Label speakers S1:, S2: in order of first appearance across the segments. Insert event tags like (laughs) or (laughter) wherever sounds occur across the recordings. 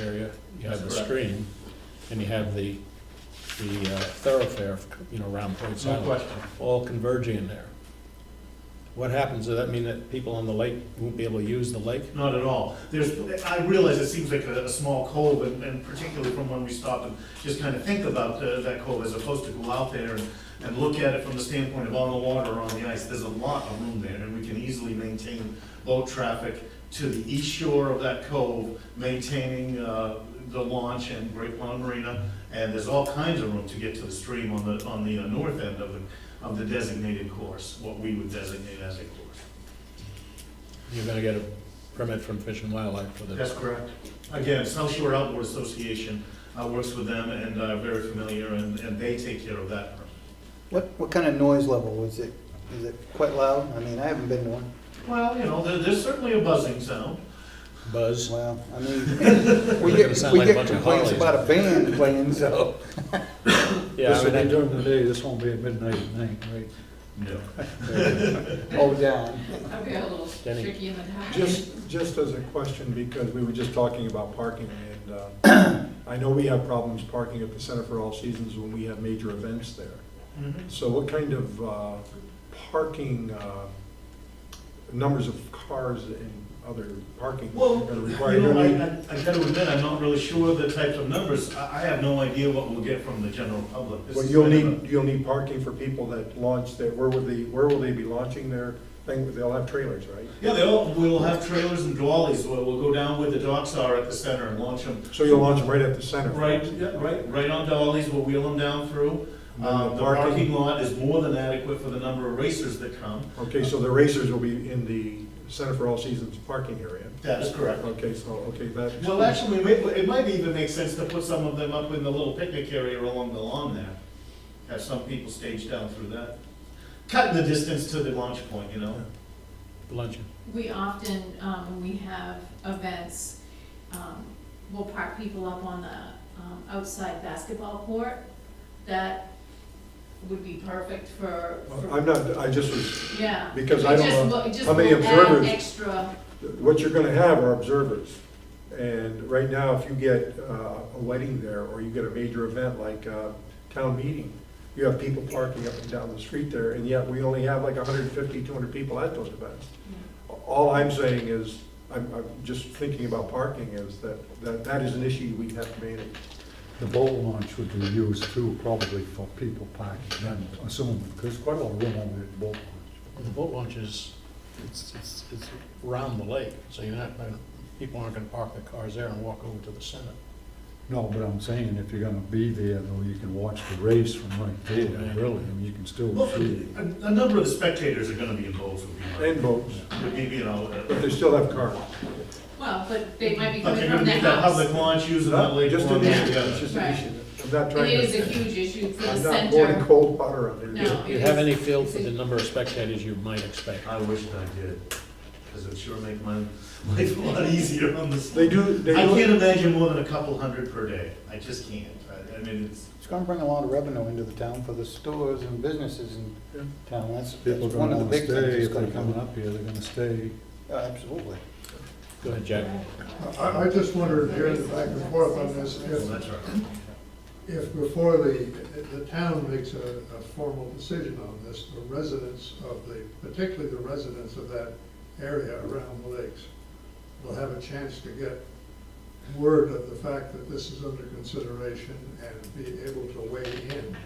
S1: You have the
S2: That's correct.
S1: stream, and you have the, the uh, thoroughfare, you know, around Point
S2: No
S1: Silent,
S2: question.
S1: all converging in there. What happens, does that mean that people on the lake won't be able to use the lake?
S2: Not at all. There's, I realize it seems like a, a small cove, and, and particularly from when we stop and just kind of think about uh, that cove as opposed to go out there and, and look at it from the standpoint of on the water or on the ice. There's a lot of room there, and we can easily maintain boat traffic to the east shore of that cove, maintaining, uh, the launch and Great Pond Marina. And there's all kinds of room to get to the stream on the, on the uh, north end of the, of the designated course, what we would designate as a course.
S1: You're gonna get a permit from Fish and Wildlife for this.
S2: That's correct. Again, South Shore Outboard Association uh, works with them and uh, very familiar, and and they take care of that.
S3: What, what kind of noise level is it? Is it quite loud? I mean, I haven't been to one.
S2: Well, you know, there- there's certainly a buzzing sound.
S1: Buzz,
S3: Well, I mean,
S1: (laughs)
S3: we
S1: They're gonna
S3: get,
S1: sound
S3: we
S1: like a
S3: get
S1: bunch of
S3: complaints
S1: hollies.
S3: about a band
S1: (laughs)
S3: playing, so.
S1: yeah, I
S4: This will be
S1: mean,
S4: during the day, this won't be at midnight at night, right?
S2: No.
S3: Oh, down.
S5: I'd be a little
S1: Denny.
S5: tricky in the back.
S4: Just, just as a question, because we were just talking about parking, and uh, I know we have problems parking at the Center for All Seasons when we have major events there.
S2: Mhm.
S4: So what kind of uh, parking, uh, numbers of cars and other parking are
S2: Well,
S4: going to
S2: you
S4: require?
S2: know, I, I- I gotta admit, I'm not really sure of the types of numbers. I, I have no idea what we'll get from the general public. This
S4: Well,
S2: is
S4: you'll
S2: kind of a-
S4: need, you'll need parking for people that launch their, where will they, where will they be launching their thing? They'll have trailers, right?
S2: Yeah, they'll, we'll have trailers and dollies, we'll, we'll go down where the docks are at the center and launch them.
S4: So you'll launch them right at the center.
S2: Right, yeah, right, right on dollies, we'll wheel them down through.
S4: And then
S2: Uh, The parking lot is more than adequate for the number of racers that come.
S4: Okay, so the racers will be in the Center for All Seasons parking area.
S2: That is correct.
S4: Okay, so, okay, that.
S2: Well, actually, it might- it might even make sense to put some of them up in the little picnic area along the lawn there. Have some people stage down through that. Cutting the distance to the launch point, you know?
S1: luncheon.
S5: We often, um, when we have events, um, we'll park people up on the, um, outside basketball court. That would be perfect for, for,
S4: I'm not, I just was,
S5: yeah.
S4: because I don't
S5: It just
S4: know
S5: will- it just
S4: how many
S5: will add
S4: observers-
S5: Extra,
S4: what you're gonna have are observers. And right now, if you get uh, a wedding there, or you get a major event like uh, town meeting, you have people parking up and down the street there, and yet we only have like 150, 200 people at those events. All I'm saying is, I'm, I'm just thinking about parking is that, that, that is an issue we have to manage.
S6: The boat launch would be used too, probably for people parking, I'm assuming, because there's quite a lot of room over at the boat launch.
S1: The boat launch is, it's, it's, it's around the lake, so you're not, gonna- people aren't gonna park their cars there and walk over to the center.
S6: No, but I'm saying if you're gonna be there, though, you can watch the race from right there, really, and you can still
S2: Well,
S6: see.
S2: a, a number of the spectators are gonna be involved, would be
S4: And
S2: my-
S4: boats,
S2: would be, you know. uh,
S4: but they still have cars.
S5: well, but they might be
S2: But they're
S5: coming
S2: gonna be
S5: from the
S2: at that
S5: house.
S2: public launch using that lake.
S4: Just
S2: lawn
S4: an
S2: there
S4: issue,
S2: together.
S4: it's just an
S5: Right.
S4: issue. I'm not
S5: It
S4: trying
S5: is a
S4: to,
S5: huge issue for the
S4: I'm not pouring
S5: center.
S4: cold water on it.
S5: No.
S1: Do you have any feel for the number of spectators you might expect?
S2: I wish I did, because it would sure make my (laughs) life a lot easier on this.
S4: They do, they
S2: I
S4: do,
S2: can't imagine more than a couple hundred per day. I just can't. I, I mean, it's,
S3: It's gonna bring a lot of revenue into the town for the stores and businesses
S4: Yeah.
S3: in town. That's, that's
S6: People are
S3: one
S6: gonna
S3: of
S6: wanna
S3: the big
S6: stay,
S3: things that's
S6: if
S3: gonna
S6: they're
S3: come
S6: coming
S3: up.
S6: up here, they're gonna stay.
S3: Absolutely.
S1: Go ahead, Jack.
S4: Uh,
S7: I, I just wondered, hearing back and forth on this,
S2: well,
S7: if,
S2: that's all right.
S7: if before the, the town makes a, a formal decision on this, the residents of the, particularly the residents of that area around the lakes will have a chance to get word of the fact that this is under consideration and be able to weigh in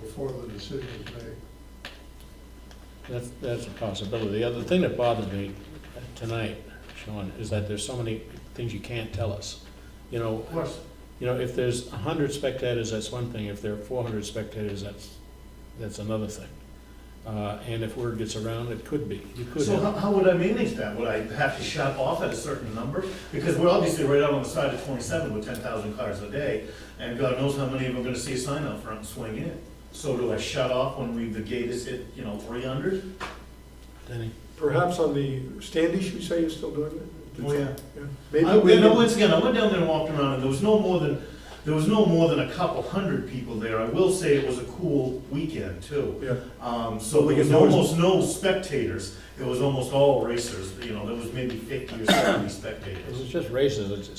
S7: before the decision is made.
S1: That's, that's a possibility. The other thing that bothered me tonight, Sean, is that there's so many things you can't tell us. You know,
S2: Of course.
S1: you know, if there's a hundred spectators, that's one thing. If there are four hundred spectators, that's, that's another thing. Uh, and if word gets around, it could be. You could
S2: So how,
S1: have,
S2: how would I manage that? Would I have to shut off at a certain number? Because we're obviously right out on the side of twenty-seven with ten thousand cars a day, and God knows how many of them are gonna see a sign out front and swing in. So do I shut off when we, the gate is hit, you know, three hundred?
S1: Denny.
S4: perhaps on the Standish, you say you're still doing it?
S2: Oh, yeah.
S4: Maybe
S2: I,
S4: we
S2: you know,
S4: can-
S2: once again, I went down there and walked around, and there was no more than, there was no more than a couple hundred people there. I will say it was a cool weekend too.
S4: Yeah.
S2: Um, so
S4: Well,
S2: there was
S4: because there was-
S2: almost no
S4: (coughs)
S2: spectators. It was almost all racers, you know, there was maybe fifty or seventy spectators.
S1: It's just races. It's,